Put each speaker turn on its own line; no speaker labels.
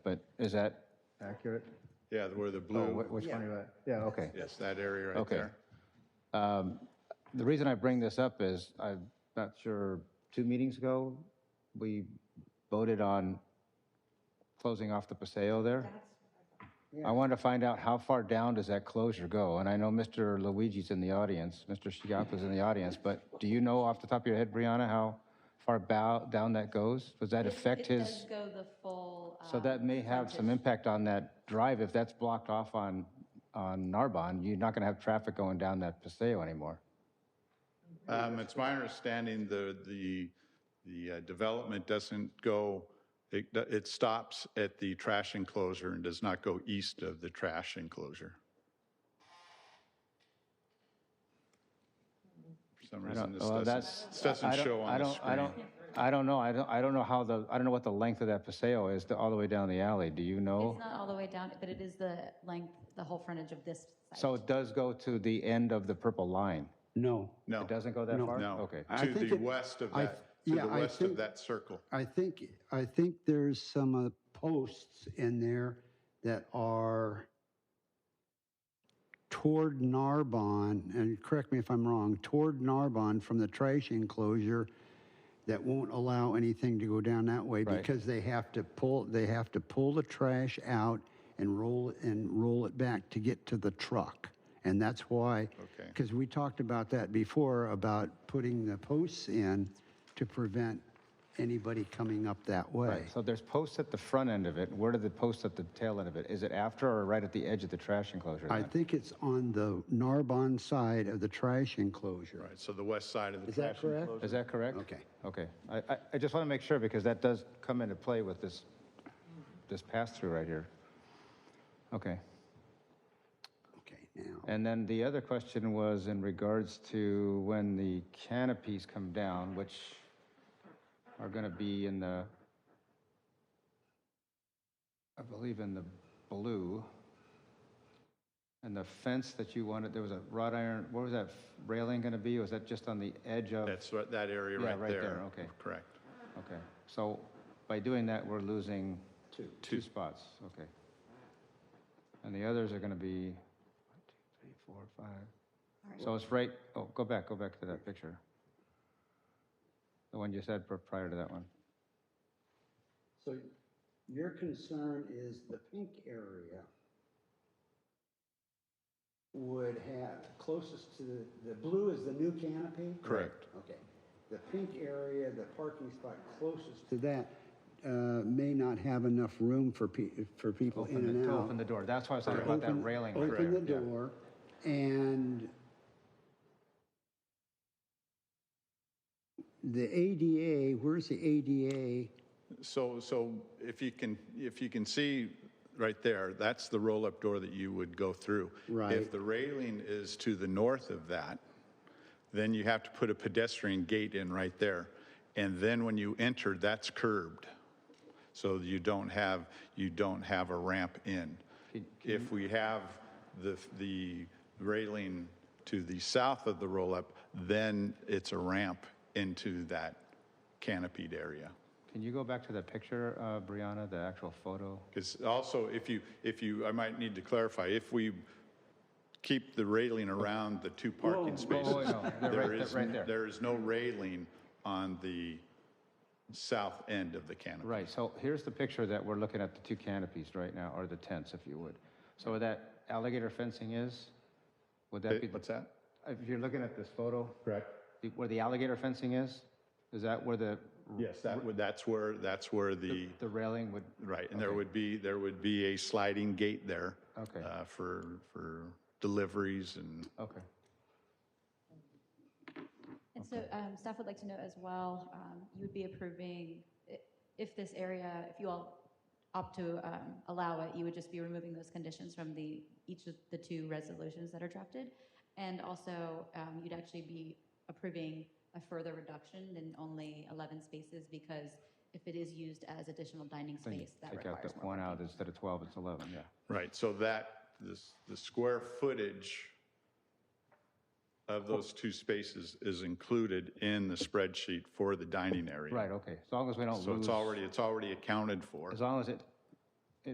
Is that accurate?
Yeah, where the
Oh,
blue,
wh- Which one are you at? Yeah, okay.
yes, that area right
Okay.
there.
Um, The reason I bring this up is, I'm not sure, two meetings ago, we voted on closing off the Paseo there. I wanted to find out how far down does that closure go? And I know Mr. Luigi's in the audience, Mr. Chiappa's in the audience, but do you know off the top of your head, Brianna, how far bow, down that goes? Does that affect
It
his?
does go the full.
So that may have some impact on that drive. If that's blocked off on, on Narbonne, you're not going to have traffic going down that Paseo anymore.
Um, It's my understanding the, the, the uh, development doesn't go, it, it stops at the trash enclosure and does not go east of the trash enclosure. For some reason, this
well,
doesn't,
that's-
this doesn't
I don't- I
show on the
don't- I
screen.
don't, I don't know. I don't, I don't know how the, I don't know what the length of that Paseo is, the- all the way down the alley. Do you know?
uh, It's not all the way down, but it is the length, the whole frontage of this site.
So it does go to the end of the purple line.
No.
No,
It doesn't go that far?
no.
Okay.
I
To
think
the
it-
west of
I
that,
th-
to
yeah,
the
I
west of
think-
that circle.
I think, I think there's some uh, posts in there that are toward Narbonne, and correct me if I'm wrong, toward Narbonne from the trash enclosure that won't allow anything to go down that way
Right.
because they have to pull, they have to pull the trash out and roll, and roll it back to get to the truck. And that's why,
Okay.
because we talked about that before, about putting the posts in to prevent anybody coming up that way.
So there's posts at the front end of it. Where do the posts at the tail end of it? Is it after or right at the edge of the trash enclosure?
I
then?
think it's on the Narbonne side of the trash enclosure.
Right, so the west side of the
Is that
trash
correct?
Is that correct?
Okay.
Okay. I, I, I just want to make sure because that does come into play with this, this pass-through right here. Okay.
Okay, now,
And then the other question was in regards to when the canopies come down, which are going to be in the, I believe in the blue. And the fence that you wanted, there was a wrought iron, what was that railing going to be? Was that just on the edge of?
That's right- that area
Yeah,
right there.
right there, okay.
Correct.
Okay, so by doing that, we're losing two spots, okay. And the others are going to be one, two, three, four, five. So it's right, oh, go back, go back to that picture. The one you said pr- prior to that one.
so your concern is the pink area would have, closest to, the- the blue is the new canopy?
Correct.
Okay. The pink area, the parking spot closest to that, uh, may not have enough room for pe, for people in
Open the-
and
to
out.
Open the door, that's why I was talking about that
Open-
railing. right
Open the
there, yeah.
door and the ADA, where's the ADA?
So, so if you can, if you can see right there, that's the roll-up door that you would go through.
Right.
If the railing is to the north of that, then you have to put a pedestrian gate in right there. And then when you enter, that's curbed. So you don't have, you don't have a ramp in. If we have the, the railing to the south of the roll-up, then it's a ramp into that canopied area.
Can you go back to the picture, uh, Brianna, the actual photo?
Because also, if you, if you, I might need to clarify, if we keep the railing around the two parking spaces,
whoa, no, they're
there
right-
is,
they're right there.
there is no railing on the south end of the canopy.
Right, so here's the picture that we're looking at, the two canopies right now, or the tents, if you would. So where that alligator fencing is, would that
Eh,
be? the-
What's that?
If you're looking at this photo,
Correct.
the- where the alligator fencing is, is that where the,
Yes, that would, that's where, that's where the,
the railing would,
right, and there would be, there would be a sliding gate there.
Okay.
uh, For, for deliveries and,
okay.
And so um, staff would like to know as well, um, you would be approving, i- if this area, if you all opt to um, allow it, you would just be removing those conditions from the, each of the two resolutions that are drafted. And also, um, you'd actually be approving a further reduction than only 11 spaces because if it is used as additional dining
Then you
space, that
Take out
requires
that
more.
one out, instead of 12, it's 11, yeah.
right, so that, this, the square footage of those two spaces is included in the spreadsheet for the dining area.
Right, okay, as long as we don't lose.
So it's already, it's already accounted for.
As long as it